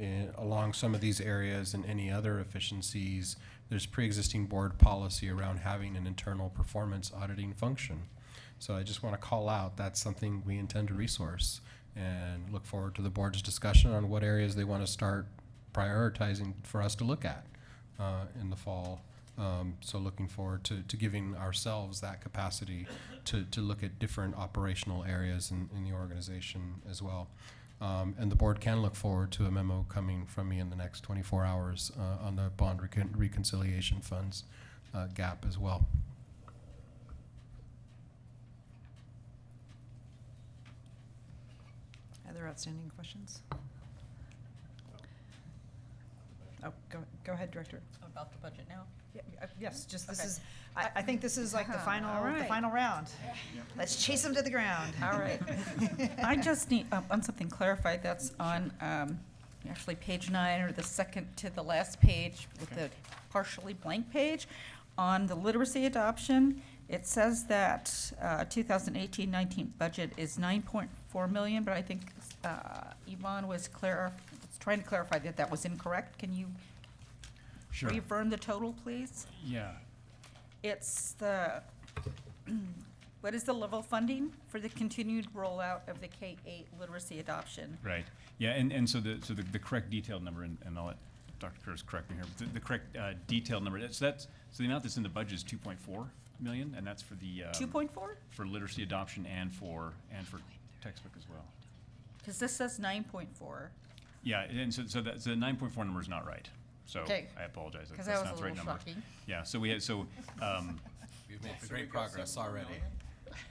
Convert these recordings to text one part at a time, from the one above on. eh, along some of these areas and any other efficiencies, there's pre-existing board policy around having an internal performance auditing function. So I just want to call out, that's something we intend to resource and look forward to the board's discussion on what areas they want to start prioritizing for us to look at uh, in the fall. Um, So looking forward to, to giving ourselves that capacity to, to look at different operational areas in, in the organization as well. Um, And the board can look forward to a memo coming from me in the next 24 hours uh, on the bond recon- reconciliation funds uh, gap as well. Other outstanding questions? Oh, go, go ahead, Director. About the budget now? Yeah, uh, Yes, just, this Okay. is, I, I think this is like the Uh-huh, final, all the right. final round. Let's chase them to the ground. All right. I just need, um, on something clarified, that's on, um, actually, page nine, or the second to the last page with the partially blank page. On the literacy adoption, it says that uh, 2018-19 budget is 9.4 million, but I think uh, Yvonne was clar, was trying to clarify that that was incorrect. Can you Sure, reaffirm the total, please? yeah. It's the, what is the level funding for the continued rollout of the K-8 literacy adoption? Right, yeah, and, and so the, so the, the correct detailed number, and, and I'll let Dr. Curtis correct me here, but the, the correct, uh, detailed number, that's, that's, so the amount that's in the budget is two point four million, and that's for the, um, 2.4? For literacy adoption and for, and for textbook as well. Because this says 9.4, Yeah, and so, so that, so the nine point four number is not right, so Okay. I apologize, that- because that was that's not a the right little number. shocking. Yeah, so we had, so, um, We've made great progress already.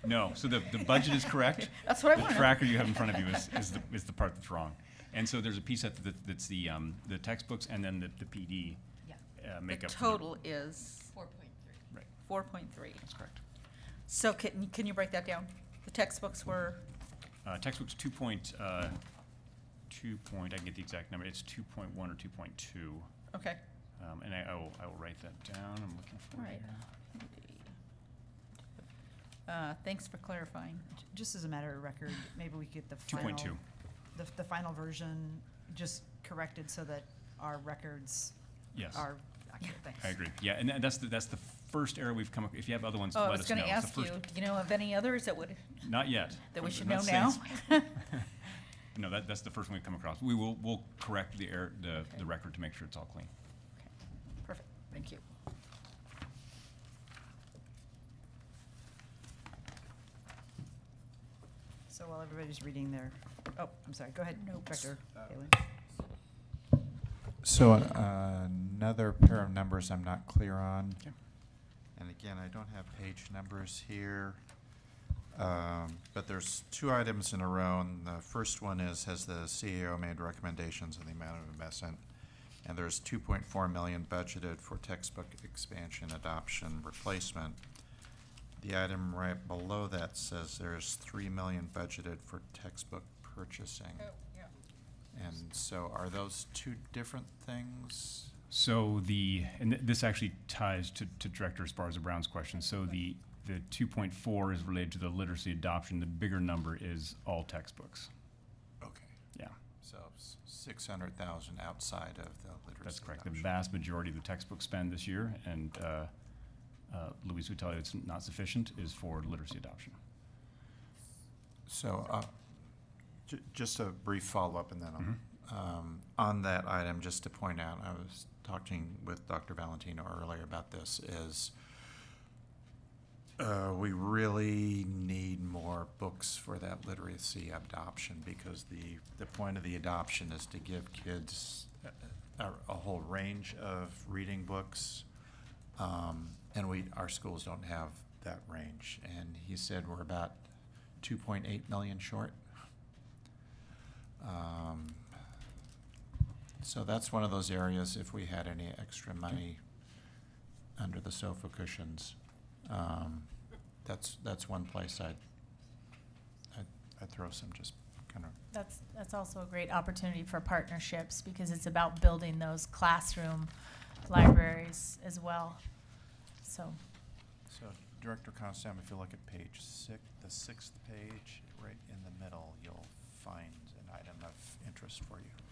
no, so the, the budget is correct, That's what I The wanted. tracker you have in front of you is, is the, is the part that's wrong. And so there's a piece that, that- that's the, um, the textbooks and then the, the PD, Yeah, uh, The make up. for total is four point three. Right, 4.3. that's correct. So can, can you break that down? The textbooks were, Uh, textbooks two point, uh, two point, I can get the exact number, it's two point one or two point two. okay. Um, and I, I will, I will write that down, I'm looking All for it right. here. Uh, Thanks for clarifying. Just as a matter of record, maybe we get the Two final. point two, The, the final version just corrected so that our records yes, are accurate, thanks. I agree. Yeah, and tha- that's the, that's the first error we've come, up. if you have other ones, Oh, let I us know. was going to It's the ask you, first- do you know of any others that would, Not yet. that we I'm should not know saying now? it's No, that, that's the first one we come across. We will, we'll correct the error, the, Okay. the record to make sure it's all clean. Perfect, thank you. So while everybody's reading their, oh, I'm sorry, go ahead, Nope. Director Bailey. So uh, another pair of numbers I'm not clear on. Okay. And again, I don't have page numbers here. Um, But there's two items in a row, and the first one is, has the CEO made recommendations on the amount of investment? And there's two point four million budgeted for textbook expansion, adoption, replacement. The item right below that says there's three million budgeted for textbook purchasing. Oh, And so are those two different things? So the, and th- this actually ties to, to Director Esparza Brown's question. So the, the two point four is related to the literacy adoption. The bigger number is all textbooks. Okay. Yeah, So six hundred thousand outside of the literacy. that's correct. The adoption. vast majority of the textbook spend this year, and, uh, uh, Luis would tell you it's not sufficient, is for literacy adoption. So, uh, ju- just a brief follow-up and then, I'll- um, on that item, just to point out, I was talking with Dr. Valentino earlier about this, is uh, we really need more books for that literacy adoption because the, the point of the adoption is to give kids a- a, a whole range of reading books. Um, and we, our schools don't have that range. And he said we're about two point eight million short. Um, So that's one of those areas, if we had any extra money under the sofa cushions, um, that's, that's one place I'd, I'd, I'd throw some just kind of That's, that's also a great opportunity for partnerships because it's about building those classroom libraries as well. So, So Director Constam, if you look at page six, the sixth page, right in the middle, you'll find an item of interest for you.